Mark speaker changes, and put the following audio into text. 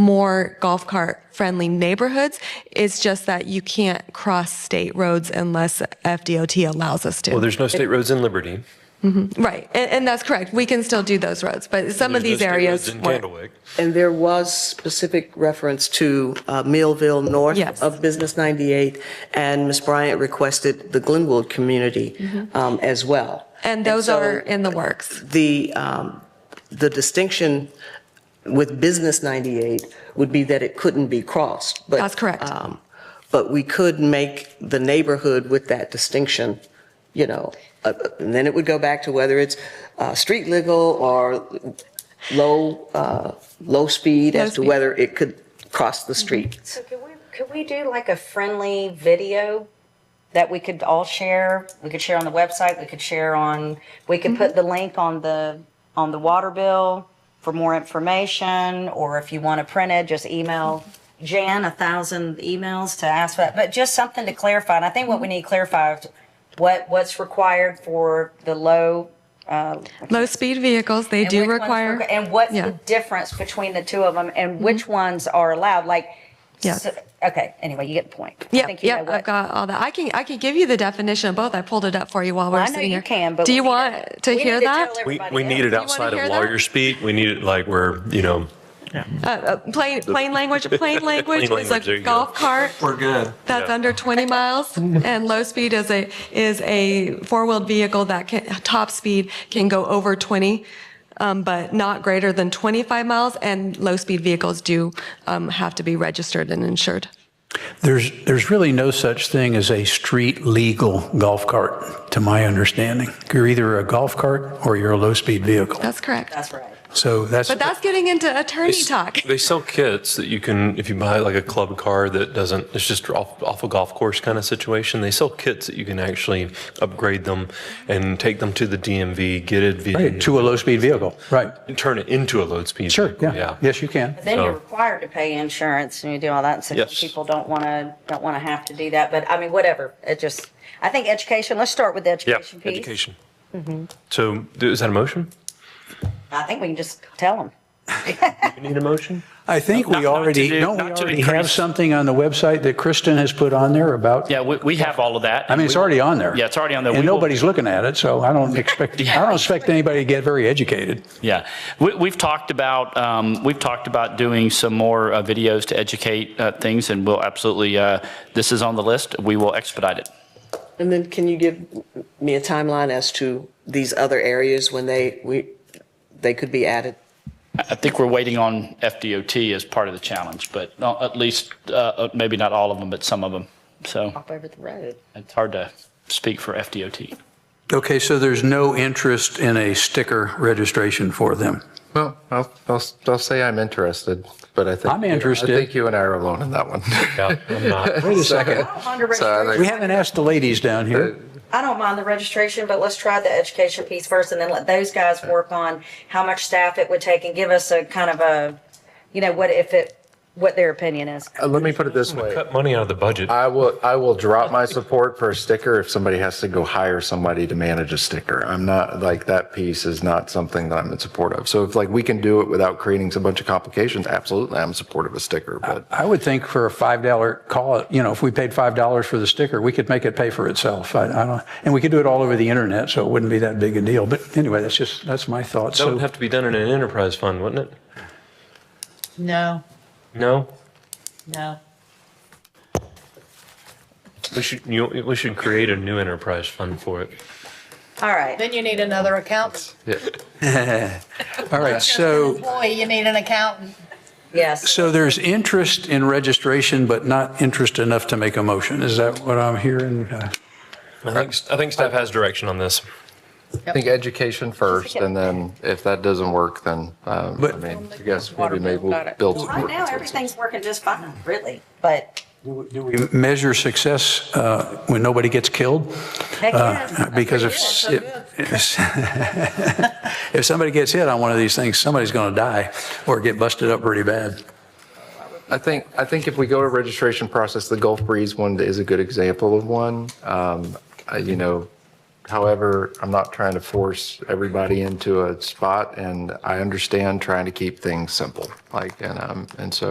Speaker 1: more golf cart friendly neighborhoods. It's just that you can't cross state roads unless FDOT allows us to.
Speaker 2: Well, there's no state roads in Liberty.
Speaker 1: Right, and, and that's correct. We can still do those roads, but some of these
Speaker 2: There's no state roads
Speaker 1: areas.
Speaker 2: In
Speaker 1: weren't.
Speaker 2: Candlewick.
Speaker 3: And there was specific reference to uh, Millville North
Speaker 1: Yes.
Speaker 3: of Business 98, and Ms. Bryant requested the Glenwood community um, as well.
Speaker 1: Mm-hmm. And those are
Speaker 3: so
Speaker 1: in the works.
Speaker 3: The, um, the distinction with Business 98 would be that it couldn't be crossed. but,
Speaker 1: That's correct.
Speaker 3: um, But we could make the neighborhood with that distinction, you know, uh, and then it would go back to whether it's uh, street legal or low, uh, low speed
Speaker 1: Low
Speaker 3: as to
Speaker 1: speed.
Speaker 3: whether it could cross the street.
Speaker 4: So could we, could we do like a friendly video that we could all share? We could share on the website, we could share on, we could put the link on the, on the water bill for more information, or if you want to print it, just email Jan a thousand emails to ask for that, but just something to clarify. And I think what we need to clarify is what, what's required for the low.
Speaker 1: Low-speed vehicles, they
Speaker 4: and
Speaker 1: do
Speaker 4: which ones
Speaker 1: require.
Speaker 4: requ- And what's
Speaker 1: yeah. Mm-hmm.
Speaker 4: the difference between the two of them and which ones are allowed? Like,
Speaker 1: Yes.
Speaker 4: s- okay, anyway, you get the point. I
Speaker 1: Yep,
Speaker 4: think you know
Speaker 1: yep,
Speaker 4: what-
Speaker 1: I've got all that. I can, I can give you the definition of both. I pulled it up for you while we
Speaker 4: Well,
Speaker 1: we're
Speaker 4: I know
Speaker 1: sitting
Speaker 4: you
Speaker 1: here.
Speaker 4: can, but
Speaker 1: Do
Speaker 4: we
Speaker 1: you
Speaker 4: need to-
Speaker 1: want to
Speaker 4: we need
Speaker 1: hear
Speaker 4: to
Speaker 1: that?
Speaker 4: tell
Speaker 2: We,
Speaker 4: Everybody
Speaker 2: we need it
Speaker 4: else.
Speaker 1: wanna
Speaker 2: outside
Speaker 1: hear
Speaker 2: of
Speaker 1: that?
Speaker 2: lawyer speak. We need it like where, you know,
Speaker 1: Uh, Plain, plain language, plain language is
Speaker 2: language, there
Speaker 1: a
Speaker 2: you go.
Speaker 1: golf cart
Speaker 5: We're good.
Speaker 1: that's
Speaker 2: Yeah.
Speaker 1: under 20 miles, and low speed is a, is a four-wheeled vehicle that can, top speed can go over 20, um, but not greater than 25 miles, and low-speed vehicles do um, have to be registered and insured.
Speaker 6: There's, there's really no such thing as a street legal golf cart, to my understanding. You're either a golf cart or you're a low-speed vehicle.
Speaker 1: That's correct.
Speaker 4: That's right.
Speaker 6: So that's.
Speaker 1: But that's getting into attorney talk.
Speaker 2: They sell kits that you can, if you buy like a club car that doesn't, it's just off, off a golf course kind of situation. They sell kits that you can actually upgrade them and take them to the DMV, get it,
Speaker 6: Right,
Speaker 2: via-
Speaker 6: To a low-speed vehicle, right.
Speaker 2: and turn it into a load speed.
Speaker 6: Sure,
Speaker 2: vehicle,
Speaker 6: yeah. Yes, you can.
Speaker 4: Then you're
Speaker 2: So-
Speaker 4: required to pay insurance and you do all that. So
Speaker 2: Yes.
Speaker 4: people don't want to, don't want to have to do that. But I mean, whatever. It just, I think education, let's start with the
Speaker 2: Yeah,
Speaker 4: education piece.
Speaker 2: education.
Speaker 1: Mm-hmm.
Speaker 2: So do- is that a motion?
Speaker 4: I think we can just tell them.
Speaker 2: You need a motion?
Speaker 6: I think
Speaker 7: Not-
Speaker 6: we
Speaker 7: not
Speaker 6: already,
Speaker 7: to do-
Speaker 6: don't we
Speaker 7: not to
Speaker 6: already have
Speaker 7: increase-
Speaker 6: something on the website that Kristen has put on there about?
Speaker 7: Yeah, we, we have all of that.
Speaker 6: I mean, it's
Speaker 7: We-
Speaker 6: already on there.
Speaker 7: Yeah, it's already on there.
Speaker 6: And
Speaker 7: We will-
Speaker 6: nobody's looking at it, so I don't expect, I don't expect anybody to get very educated.
Speaker 7: Yeah, we, we've talked about um, we've talked about doing some more uh, videos to educate uh, things, and we'll absolutely. Uh, this is on the list. We will expedite it.
Speaker 3: And then can you give me a timeline as to these other areas when they, we, they could be added?
Speaker 7: I think we're waiting on FDOT as part of the challenge, but uh, at least uh, uh, maybe not all of them, but some of them. So
Speaker 4: Up over the road.
Speaker 7: it's hard to speak for FDOT.
Speaker 6: Okay, so there's no interest in a sticker registration for them?
Speaker 8: Well, I'll, I'll, I'll say I'm interested, but I think.
Speaker 6: I'm interested.
Speaker 8: I think you and I are alone in that one. Uh,
Speaker 2: Yeah, I'm not.
Speaker 6: Wait a
Speaker 4: I
Speaker 6: second.
Speaker 4: don't mind the
Speaker 8: So I
Speaker 4: registration.
Speaker 6: We haven't asked the ladies down here.
Speaker 4: I don't mind the registration, but let's try the education piece first and then let those guys work on how much staff it would take and give us a kind of a, you know, what if it, what their opinion is.
Speaker 8: Uh, Let me put it this way.
Speaker 2: Cut money out of the budget.
Speaker 6: Uh,
Speaker 8: I will, I will drop my support for a sticker if somebody has to go hire somebody to manage a sticker. I'm not, like, that piece is not something that I'm in support of. So if like we can do it without creating a bunch of complications, absolutely, I'm supportive of a sticker, but.
Speaker 6: I would think for a $5 call, you know, if we paid $5 for the sticker, we could make it pay for itself. I, I don't, and we could do it all over the internet, so it wouldn't be that big a deal. But anyway, that's just, that's my thought.
Speaker 2: That
Speaker 6: So
Speaker 2: would have to be done in an enterprise fund, wouldn't it?
Speaker 9: No,
Speaker 2: No?
Speaker 9: no.
Speaker 2: We should, you, we should create a new enterprise fund for it.
Speaker 4: All right.
Speaker 9: Then you need another accountant.
Speaker 6: All right, so,
Speaker 9: Employee, you need an accountant.
Speaker 4: Yes.
Speaker 6: so there's interest in registration, but not interest enough to make a motion. Is that what I'm hearing? Uh,
Speaker 2: I think, I think staff has direction on this.
Speaker 8: I think education first, and then if that doesn't work, then, um, I
Speaker 6: But-
Speaker 8: mean, I guess maybe maybe we'll build some.
Speaker 4: Right now, everything's working just fine, really, but
Speaker 6: Do we measure success uh, when nobody gets killed?
Speaker 8: Uh,
Speaker 4: heck yeah.
Speaker 6: Because if,
Speaker 9: Pretty good,
Speaker 6: if- if somebody gets hit on one of these things, somebody's going to die or get busted up pretty bad.
Speaker 8: I think, I think if we go to registration process, the Gulf Breeze one is a good example of one. Um, I- You know, However, I'm not trying to force everybody into a spot and I understand trying to keep things simple. Like, and, um, and so